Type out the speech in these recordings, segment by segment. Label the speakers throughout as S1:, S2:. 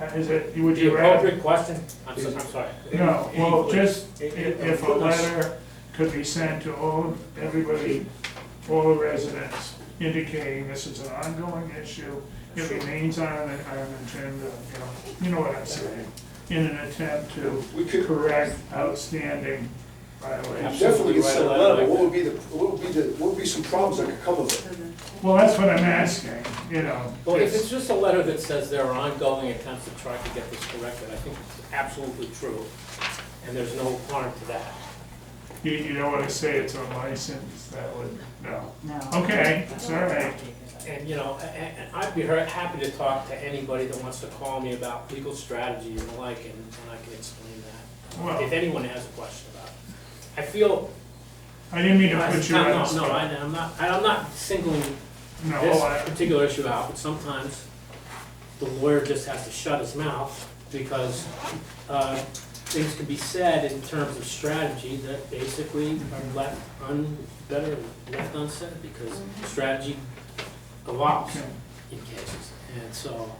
S1: Uh, Is it, would
S2: The
S1: you rather?
S2: appropriate question, I'm so- I'm sorry.
S1: No, well, just i-
S2: Equally.
S1: if a letter could be sent to all, everybody, all the residents indicating this is an ongoing issue. It remains on an, on an agenda, you know, you know what I'm saying, in an attempt to
S3: We could
S1: correct outstanding violations.
S3: definitely
S2: Absolutely
S3: get sent a
S2: right on
S3: letter,
S2: that.
S3: but what would be the, what would be the, what would be some problems that could come of it?
S1: Well, that's what I'm asking, you know.
S2: Well, if it's just a letter that says there are ongoing attempts to try to get this corrected, I think it's absolutely true, and there's no harm to that.
S1: You, you don't wanna say it's a license, that would, no.
S4: No.
S1: Okay, it's all right.
S2: And, you know, a- a- and I'd be very happy to talk to anybody that wants to call me about legal strategy and the like, and and I can explain that, if
S1: Well,
S2: anyone has a question about it. I feel,
S1: I didn't mean to
S2: no,
S1: put you on the
S2: no, no, I-
S1: spot.
S2: I'm not, I'm not singling
S1: No,
S2: this
S1: I,
S2: particular issue out, but sometimes the lawyer just has to shut his mouth because uh, things can be said in terms of strategy that basically are left un, better left unsaid because strategy evolves
S1: okay.
S2: in cases. And so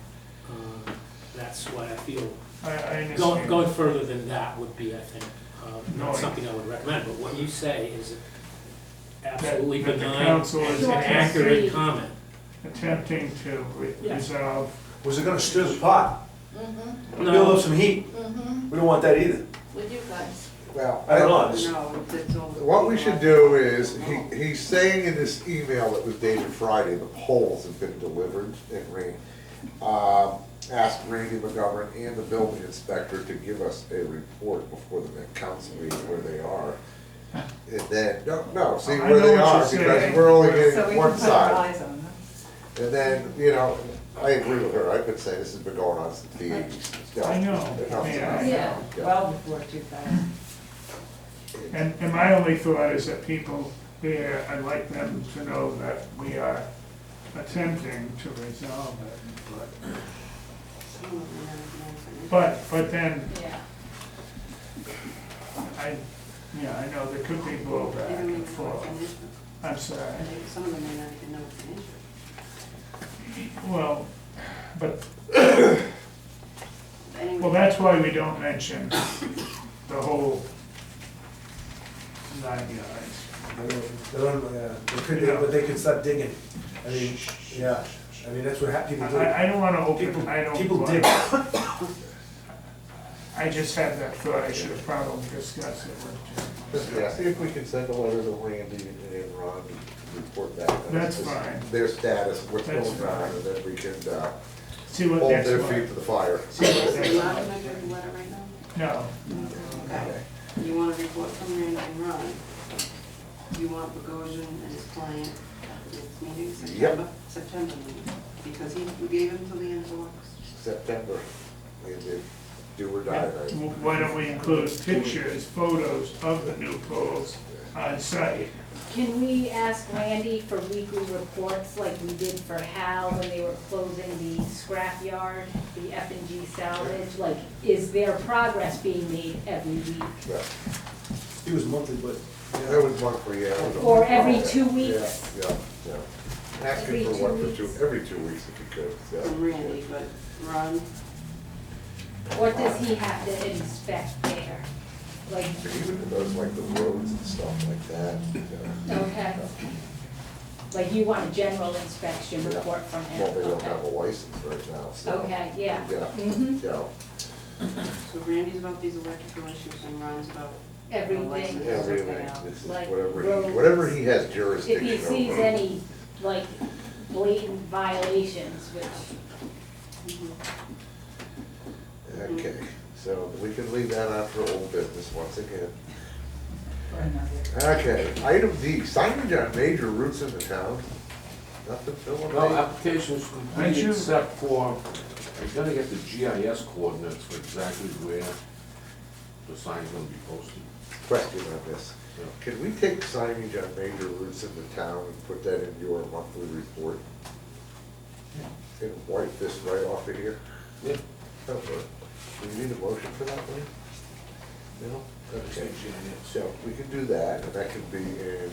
S2: uh, that's why I feel
S1: I, I understand.
S2: Going, going further than that would be, I think, uh,
S1: No,
S2: not
S1: I-
S2: something I would recommend, but what you say is
S1: that-
S2: absolutely
S1: that the
S2: benign
S1: council is
S2: and an accurate comment.
S1: attempting to re-
S2: Yeah.
S1: resolve.
S3: Was it gonna stir the pot,
S2: No,
S3: some heat?
S4: Mm-hmm,
S3: We don't want that either.
S4: with you guys.
S3: I don't
S5: Well,
S3: know, it's-
S6: Oh,
S4: No, it's all.
S5: what we should do is, he, he's saying in this email that was dated Friday, the polls have been delivered and ran. Um ask Randy McGovern and the building inspector to give us a report before the next council meeting where they are. And then, no, no, see
S1: I
S5: where
S1: know
S5: they
S1: what you're
S5: are, because
S1: saying.
S5: we're only
S6: So we
S5: getting
S6: can
S5: one
S6: put
S5: side.
S6: our eyes on them.
S5: And then, you know, I agree with her, I've been saying this has been going on since the eighties.
S1: I know, yeah, I
S6: Yeah,
S1: know.
S6: well before two thousand.
S1: And, and my only thought is that people here, I'd like them to know that we are attempting to resolve it. But, but, but then,
S4: Yeah.
S1: I, yeah, I know there could be blowback and forth. I'm sorry.
S4: Some of them may not even know it's an issue.
S1: Well, but,
S4: Anyway.
S1: well, that's why we don't mention the whole nine yards.
S7: I mean, they're on, uh, they could, they- but they could start digging. I mean, yeah, I mean, that's what hap- people do.
S1: I, I don't wanna open,
S7: People-
S1: I don't.
S7: people
S1: wanna-
S7: dig.
S1: I just had that thought, I should have probably discussed it with Jim.
S5: Yeah, see if we can send a letter to Randy and then Ron and report back. on
S1: That's
S5: this-
S1: fine.
S5: Their status, what's
S1: That's
S5: going on, and then we can, uh,
S1: See what
S5: hold
S1: next
S5: their feet
S1: one,
S5: to the fire.
S1: see what
S4: Are
S1: next
S4: you allowed to
S1: one,
S4: make a letter right now?
S1: no,
S4: Okay. You want a report from Randy and Ron? You want Bogosian and his client at the next meeting, September, September meeting? Because he, we gave him till the end of August.
S5: September, we did do or die, right?
S1: W- why don't we include pictures, photos of the new poles on site?
S8: Can we ask Randy for weekly reports like we did for Hal when they were closing the scrapyard, the F and G salvage? Like, is there progress being made every week
S5: Yeah,
S7: It was monthly, but,
S5: That was one for you.
S8: or every two
S5: Yeah,
S8: weeks?
S5: yeah, yeah. Asking for
S8: Every two
S5: one for two,
S8: weeks.
S5: every two weeks if you could, yeah.
S4: From Randy, but Ron,
S8: What does he have to inspect there? Like,
S5: Even those, like the roads and stuff like that, yeah.
S8: okay. Like you want a general inspection
S5: Yeah.
S8: report from him?
S5: Well, they don't
S8: okay.
S5: have a license right now, so.
S8: Okay, yeah.
S5: Yeah.
S8: hmm
S5: Yeah,
S4: so Randy's about these electrical issues and Ron's about
S8: everything.
S5: yeah, really, this is
S8: Like
S5: whatever, he-
S8: roads.
S5: whatever he has
S8: If
S5: jurisdiction over.
S8: he sees any, like, blatant violations, which
S5: Okay, so we can leave that out for old business once again.
S6: Or another.
S5: Okay, item D, signage on major routes in the town. Nothing filling
S9: Well, application's complete
S1: Aren't you-
S9: except for, I gotta get the GIS coordinates for exactly where the sign's gonna be posted.
S5: Question on this. Can we take signage on major routes in the town and put that in your monthly report? And wipe this right off of here?
S9: Yeah.
S5: Okay. Do we need a motion for that, Lee? No? Okay. So we can do that, and that can be in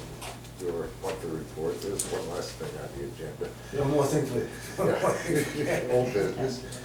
S5: your monthly report. There's one last thing on the agenda.
S7: you know, more things, but.
S5: Yeah. Old business.